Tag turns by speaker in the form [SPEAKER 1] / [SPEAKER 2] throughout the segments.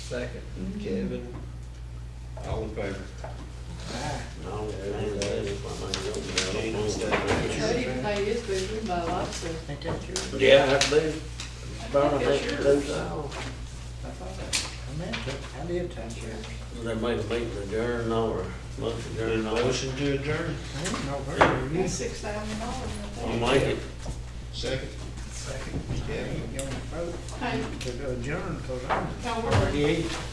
[SPEAKER 1] Second, Kevin. All in favor?
[SPEAKER 2] No, man, that is my main
[SPEAKER 1] Jeez.
[SPEAKER 2] goal.
[SPEAKER 3] Cody paid his bill, we buy lots of.
[SPEAKER 4] They took yours.
[SPEAKER 2] Yeah, I do. Burn, I think, do so.
[SPEAKER 4] I thought I, I meant to, I did touch yours.
[SPEAKER 2] They made a meeting adjourn or motion adjourn or.
[SPEAKER 1] Motion to adjourn.
[SPEAKER 4] I didn't know where you
[SPEAKER 3] That's
[SPEAKER 4] used it.
[SPEAKER 3] six thousand dollars, I
[SPEAKER 2] I'll
[SPEAKER 3] think.
[SPEAKER 2] make it.
[SPEAKER 1] Second. Second,
[SPEAKER 4] I ain't gonna vote
[SPEAKER 3] Hey,
[SPEAKER 4] to adjourn, cause I'm.
[SPEAKER 3] y'all work.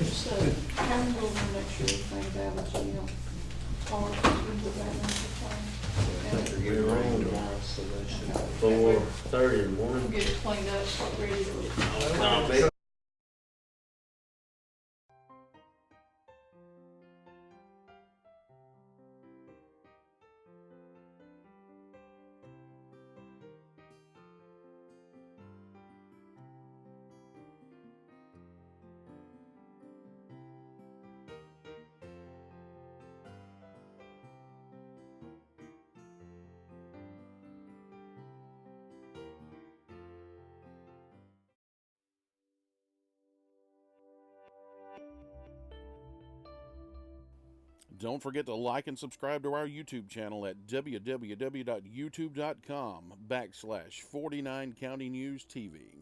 [SPEAKER 3] So, how we going to make sure things out, so you don't, or we do that in the plan? And
[SPEAKER 2] We're on tomorrow, so they should be four thirty in the
[SPEAKER 3] We'll
[SPEAKER 2] morning.
[SPEAKER 3] get it cleaned up, so we're ready to.
[SPEAKER 2] I'll be-
[SPEAKER 5] Don't forget to like and subscribe to our YouTube channel at www.youtube.com backslash 49 County News TV.